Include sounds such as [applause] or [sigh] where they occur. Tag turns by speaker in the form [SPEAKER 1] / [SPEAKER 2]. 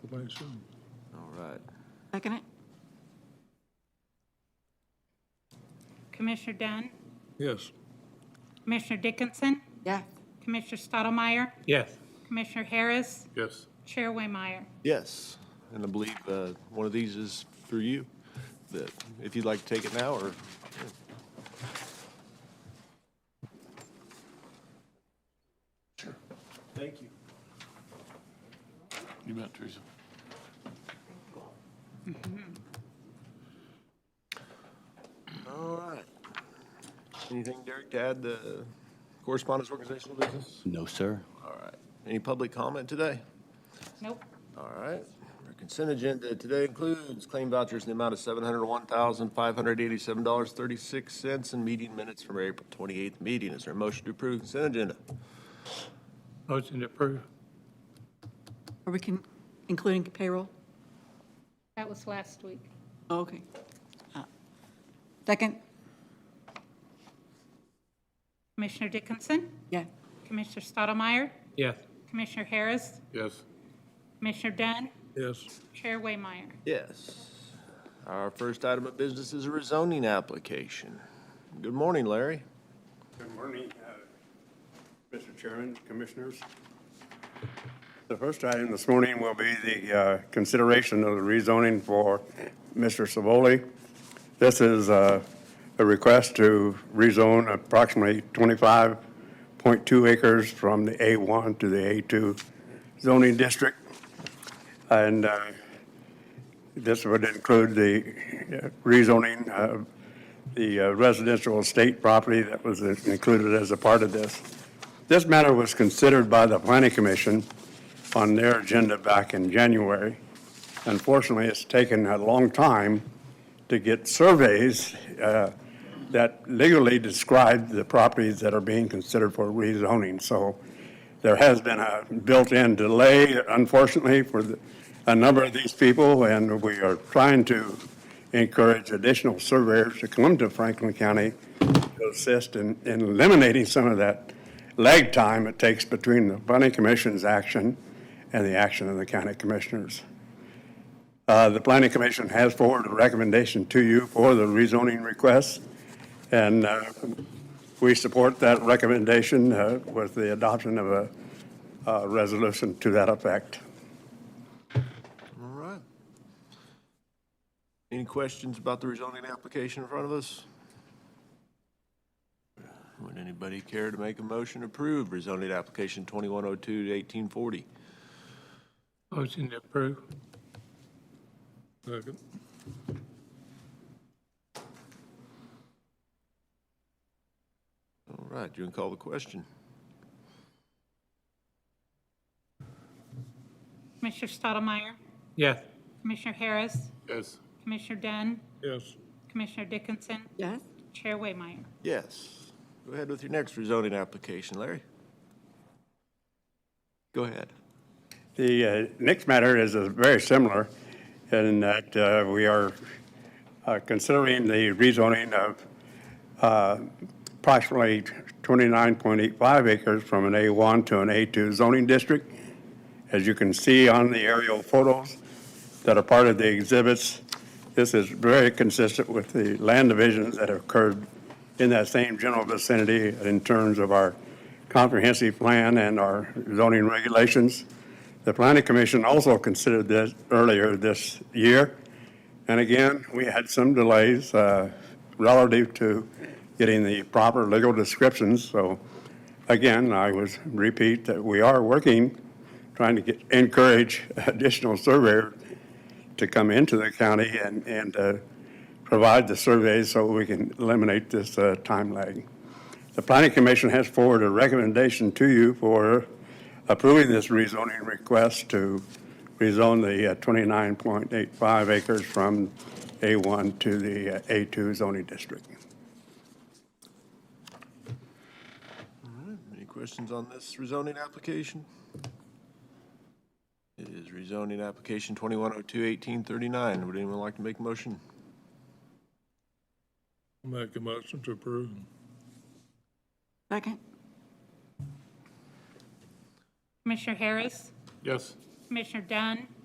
[SPEAKER 1] proclamation.
[SPEAKER 2] All right.
[SPEAKER 3] Second it?
[SPEAKER 4] Commissioner Dunn,
[SPEAKER 1] Yes.
[SPEAKER 4] Commissioner Dickinson,
[SPEAKER 3] Yeah.
[SPEAKER 4] Commissioner Stottlemyre,
[SPEAKER 5] Yes.
[SPEAKER 4] Commissioner Harris,
[SPEAKER 5] Yes.
[SPEAKER 4] Chair Waymire.
[SPEAKER 6] Yes, and I believe uh, one of these is for you, that if you'd like to take it now, or,
[SPEAKER 5] You bet, Teresa.
[SPEAKER 6] all right. Anything, Derek, to add to correspondence organizational business?
[SPEAKER 7] No, sir.
[SPEAKER 6] All right. Any public comment today?
[SPEAKER 4] Nope.
[SPEAKER 6] All right. Our consent agenda today includes claim vouchers in the amount of $701,587.36 and meeting minutes from our April 28th meeting. Is there a motion to approve consent agenda?
[SPEAKER 5] Motion to approve.
[SPEAKER 3] Are we can, including payroll?
[SPEAKER 4] That was last week.
[SPEAKER 3] Oh, Okay. Uh, Second?
[SPEAKER 4] Commissioner Dickinson,
[SPEAKER 3] Yeah.
[SPEAKER 4] Commissioner Stottlemyre,
[SPEAKER 5] Yes.
[SPEAKER 4] Commissioner Harris,
[SPEAKER 5] Yes.
[SPEAKER 4] Commissioner Dunn,
[SPEAKER 1] Yes.
[SPEAKER 4] Chair Waymire.
[SPEAKER 6] Yes. Our first item of business is a rezoning application. Good morning, Larry.
[SPEAKER 8] Good morning, uh, Mr. Chairman, Commissioners. The first item this morning will be the uh, consideration of the rezoning for Mr. Savoli. This is uh, a request to rezone approximately 25.2 acres from the A1 to the A2 zoning district. And uh, this would include the uh, rezoning of the uh, residential estate property that was included as a part of this. This matter was considered by the planning commission on their agenda back in January. Unfortunately, it's taken a long time to get surveys uh, that legally describe the properties that are being considered for rezoning. So there has been a built-in delay, unfortunately, for the- a number of these people, and we are trying to encourage additional surveyors to come to Franklin County to assist in in eliminating some of that lag time it takes between the planning commission's action and the action of the county commissioners. Uh, The planning commission has forwarded a recommendation to you for the rezoning request, and uh, we support that recommendation uh, with the adoption of a uh, resolution to that effect.
[SPEAKER 6] All right. Any questions about the rezoning application in front of us? Would anybody care to make a motion to approve rezoning application 2102 to 1840?
[SPEAKER 5] Motion to approve.
[SPEAKER 1] Second.
[SPEAKER 6] All right, you can call the question.
[SPEAKER 4] Commissioner Stottlemyre,
[SPEAKER 5] Yes.
[SPEAKER 4] Commissioner Harris,
[SPEAKER 5] Yes.
[SPEAKER 4] Commissioner Dunn,
[SPEAKER 1] Yes.
[SPEAKER 4] Commissioner Dickinson,
[SPEAKER 3] Yes?
[SPEAKER 4] Chair Waymire.
[SPEAKER 6] Yes. Go ahead with your next rezoning application, Larry. Go ahead.
[SPEAKER 8] The uh, next matter is uh, very similar in that uh, we are uh, considering the rezoning of uh, approximately 29.85 acres from an A1 to an A2 zoning district. As you can see on the aerial photos that are part of the exhibits, this is very consistent with the land divisions that have occurred in that same general vicinity in terms of our comprehensive plan and our zoning regulations. The planning commission also considered this earlier this year. And again, we had some delays uh, relative to getting the proper legal descriptions. So again, I was repeat that we are working, trying to get, encourage [laughs] additional surveyor to come into the county and, and uh, provide the surveys so we can eliminate this uh, time lag. The planning commission has forwarded a recommendation to you for approving this rezoning request to rezone the uh, 29.85 acres from A1 to the uh, A2 zoning district.
[SPEAKER 6] Any questions on this rezoning application? It is rezoning application 2102-1839. Would anyone like to make a motion?
[SPEAKER 1] Make a motion to approve.
[SPEAKER 3] Second?
[SPEAKER 4] Commissioner Harris,
[SPEAKER 5] Yes.
[SPEAKER 4] Commissioner Dunn,